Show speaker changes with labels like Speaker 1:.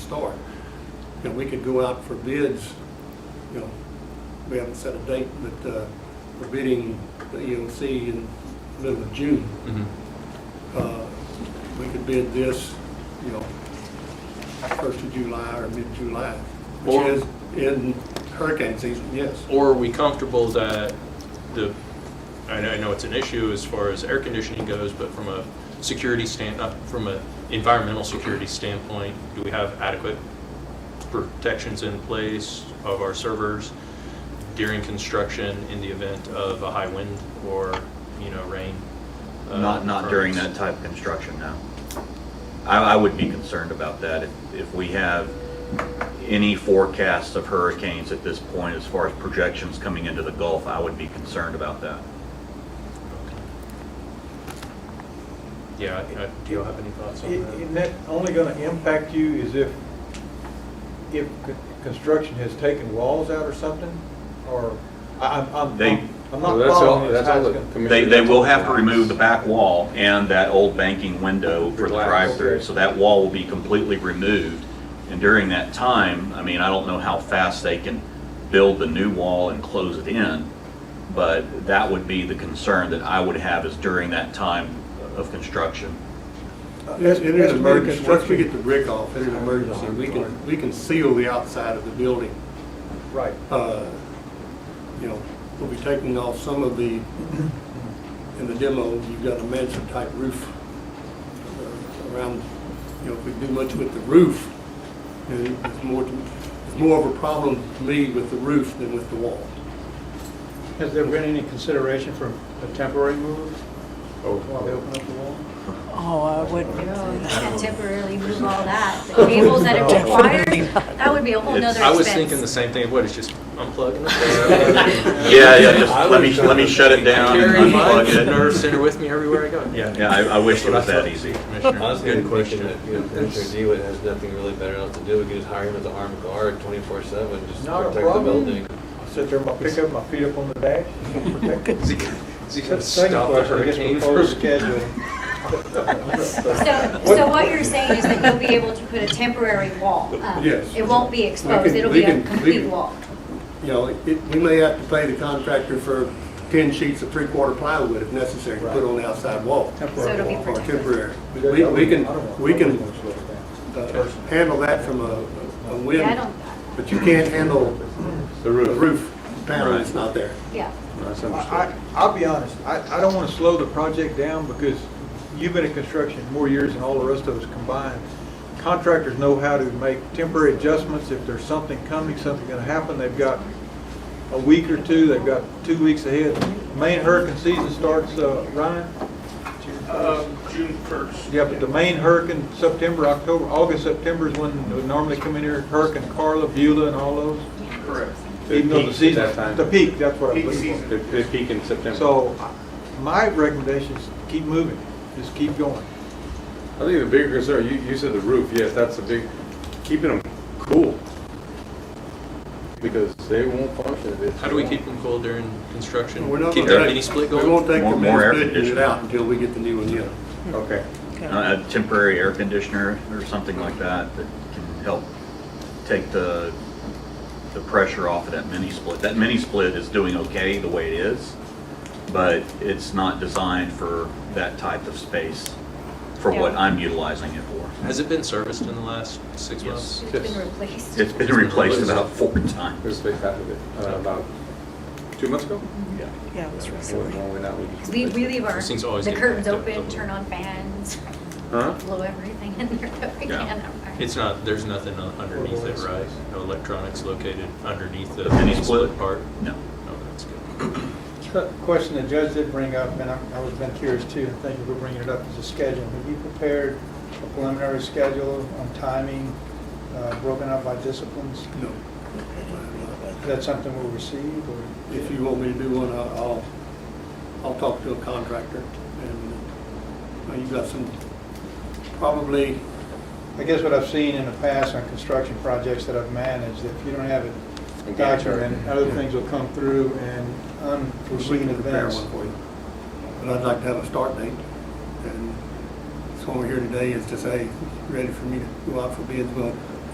Speaker 1: start. And we could go out for bids, you know, we haven't set a date, but uh, we're bidding the EOC in the middle of June.
Speaker 2: Mhm.
Speaker 1: Uh, We could bid this, you know, first of July or mid-July,
Speaker 2: Or-
Speaker 1: which is in hurricane season, yes.
Speaker 2: Or are we comfortable that the, I know, I know it's an issue as far as air conditioning goes, but from a security stand, not from an environmental security standpoint, do we have adequate protections in place of our servers during construction in the event of a high wind or, you know, rain? uh,
Speaker 3: Not, not during that
Speaker 2: occurrence?
Speaker 3: type of construction, no. I, I would be concerned about that if, if we have any forecasts of hurricanes at this point as far as projections coming into the Gulf, I would be concerned about that.
Speaker 2: Yeah, I- I- do you have any thoughts
Speaker 4: It-
Speaker 2: on that?
Speaker 4: it that only gonna impact you is if, if con- construction has taken walls out or something, or, I, I'm, I'm,
Speaker 3: They-
Speaker 4: I'm
Speaker 5: Well,
Speaker 4: not
Speaker 5: that's all-
Speaker 4: following this.
Speaker 5: that's
Speaker 4: how
Speaker 5: all
Speaker 4: it's
Speaker 5: the
Speaker 4: gonna-
Speaker 5: commission-
Speaker 3: They, they will have to remove the back wall and that old banking window for the
Speaker 5: Glass.
Speaker 3: drive-through, so that wall will be completely removed. And during that time, I mean, I don't know how fast they can build the new wall and close it in, but that would be the concern that I would have is during that time of construction.
Speaker 4: Uh,
Speaker 1: It it is
Speaker 4: that's
Speaker 1: an
Speaker 4: mere
Speaker 1: emergency, once we
Speaker 4: construction.
Speaker 1: get the brick off, it's an emergency, we can, we can seal the outside of the building.
Speaker 4: Right.
Speaker 1: Uh, You know, we'll be taking off some of the, in the demo, you've got a mansion type roof uh, around, you know, if we do much with the roof, you know, it's more, it's more of a problem to me with the roof than with the wall.
Speaker 6: Has there been any consideration for a temporary move
Speaker 2: Oh.
Speaker 6: while they open up the wall?
Speaker 7: Oh, I wouldn't.
Speaker 8: No, you can't temporarily move all that. The cables that are required, that would be a whole nother
Speaker 2: I
Speaker 8: expense.
Speaker 2: was thinking the same thing, what, it's just unplugging?
Speaker 3: Yeah, yeah, just let me, let me shut it down and
Speaker 2: Carry my
Speaker 3: unplug
Speaker 2: nerve
Speaker 3: it.
Speaker 2: center with me everywhere I go.
Speaker 3: Yeah, I, I wish it was that easy.
Speaker 2: Commissioner,
Speaker 9: Honestly,
Speaker 2: good
Speaker 9: I'm thinking
Speaker 2: question.
Speaker 9: that, you know, Commissioner Dewitt has nothing really better else to do, we could just hire him as an armed guard twenty-four seven, just
Speaker 4: Not a
Speaker 9: protect the
Speaker 4: problem.
Speaker 9: building.
Speaker 4: Sit there, my- pick up my feet up on the dash, protect it.
Speaker 2: Is he, is he gonna
Speaker 6: Second
Speaker 2: stop the
Speaker 6: question, I guess
Speaker 2: hurricane
Speaker 6: before
Speaker 2: first?
Speaker 6: scheduling.
Speaker 8: So, so what you're saying is that you'll be able to put a temporary wall up?
Speaker 1: Yes.
Speaker 8: It won't be exposed,
Speaker 1: can-
Speaker 8: it'll
Speaker 1: we
Speaker 8: be
Speaker 1: can-
Speaker 8: a
Speaker 1: we
Speaker 8: complete
Speaker 1: can-
Speaker 8: wall.
Speaker 1: You know, it, we may have to pay the contractor for ten sheets of three-quarter plywood if necessary to put on the outside wall.
Speaker 8: So it'll be
Speaker 1: Or
Speaker 8: protected.
Speaker 1: temporary. We, we
Speaker 4: I don't want-
Speaker 1: can, we
Speaker 4: I
Speaker 1: can
Speaker 4: don't want to slow it down.
Speaker 1: uh, handle that from a, a
Speaker 8: Yeah, I
Speaker 1: wind,
Speaker 8: don't,
Speaker 1: but you can't handle
Speaker 5: The
Speaker 1: the
Speaker 5: roof.
Speaker 1: roof panel that's not there.
Speaker 8: yeah.
Speaker 5: That's
Speaker 4: I, I-
Speaker 5: understood.
Speaker 4: I'll be honest, I, I don't want to slow the project down because you've been in construction more years than all the rest of us combined. Contractors know how to make temporary adjustments. If there's something coming, something going to happen, they've got a week or two, they've got two weeks ahead. Main hurricane season starts, uh, Ryan?
Speaker 10: Um, June first.
Speaker 4: Yeah, but the main hurricane, September, October, August, September is when we normally come in here, Hurricane Carla, Beulah and all those.
Speaker 10: Correct.
Speaker 4: Even though the
Speaker 5: peaks at
Speaker 4: season,
Speaker 5: that time.
Speaker 4: the peak, that's what I'm
Speaker 10: Peak
Speaker 4: looking for.
Speaker 10: season.
Speaker 5: They they peak in September.
Speaker 4: So
Speaker 6: uh,
Speaker 4: my recommendation is keep moving, just keep going.
Speaker 5: I think the bigger concern, you, you said the roof, yes, that's a big, keeping them cool. Because they won't function if it's.
Speaker 2: How do we keep them cool during construction?
Speaker 1: We're not
Speaker 2: Keep
Speaker 1: gonna
Speaker 2: that
Speaker 1: take-
Speaker 2: mini split
Speaker 1: We won't
Speaker 2: going?
Speaker 1: take the
Speaker 3: More- more air
Speaker 1: men's it
Speaker 3: conditioning.
Speaker 1: out until we get the new one in.
Speaker 5: Okay.
Speaker 3: A temporary air conditioner or something like that that can help take the, the pressure off of that mini split. That mini split is doing okay the way it is, but it's not designed for that type of space, for what
Speaker 8: Yeah.
Speaker 3: I'm utilizing it for.
Speaker 2: Has it been serviced in the last six months?
Speaker 3: Yes.
Speaker 8: It's been replaced.
Speaker 3: It's been replaced about four times.
Speaker 5: There's space half of it, uh, about two months ago?
Speaker 3: Yeah.
Speaker 7: Yeah, it was recently.
Speaker 5: When- when that we just-
Speaker 8: Mm-hmm. We, we leave our,
Speaker 2: Those things always
Speaker 8: the
Speaker 2: get
Speaker 8: curtains
Speaker 2: backed up,
Speaker 8: open,
Speaker 2: don't they?
Speaker 8: turn on fans,
Speaker 5: Huh?
Speaker 8: blow everything in there that we
Speaker 3: Yeah.
Speaker 8: can.
Speaker 2: It's not, there's nothing un- underneath it, right? No electronics located underneath the
Speaker 3: The mini
Speaker 2: mini split
Speaker 3: split?
Speaker 2: part?
Speaker 3: No.
Speaker 2: Oh, that's good.
Speaker 6: The Question the judge did bring up, and I I was been curious too, and thank you for bringing it up, is a schedule. Have you prepared a preliminary schedule on timing, uh, broken up by disciplines?
Speaker 1: No.
Speaker 6: Is that something we'll receive, or?
Speaker 1: If you want me to do one, I'll, I'll- I'll talk to a contractor and uh, you've got some, probably,
Speaker 6: I guess what I've seen in the past on construction projects that I've managed, if you don't have it
Speaker 5: A Gantt chart.
Speaker 6: documented, other things will come through and
Speaker 1: we
Speaker 6: unforeseen
Speaker 1: can prepare
Speaker 6: events.
Speaker 1: one for you. But I'd like to have a start date. And so we're here today is to say, ready for me to go out for bids. Well,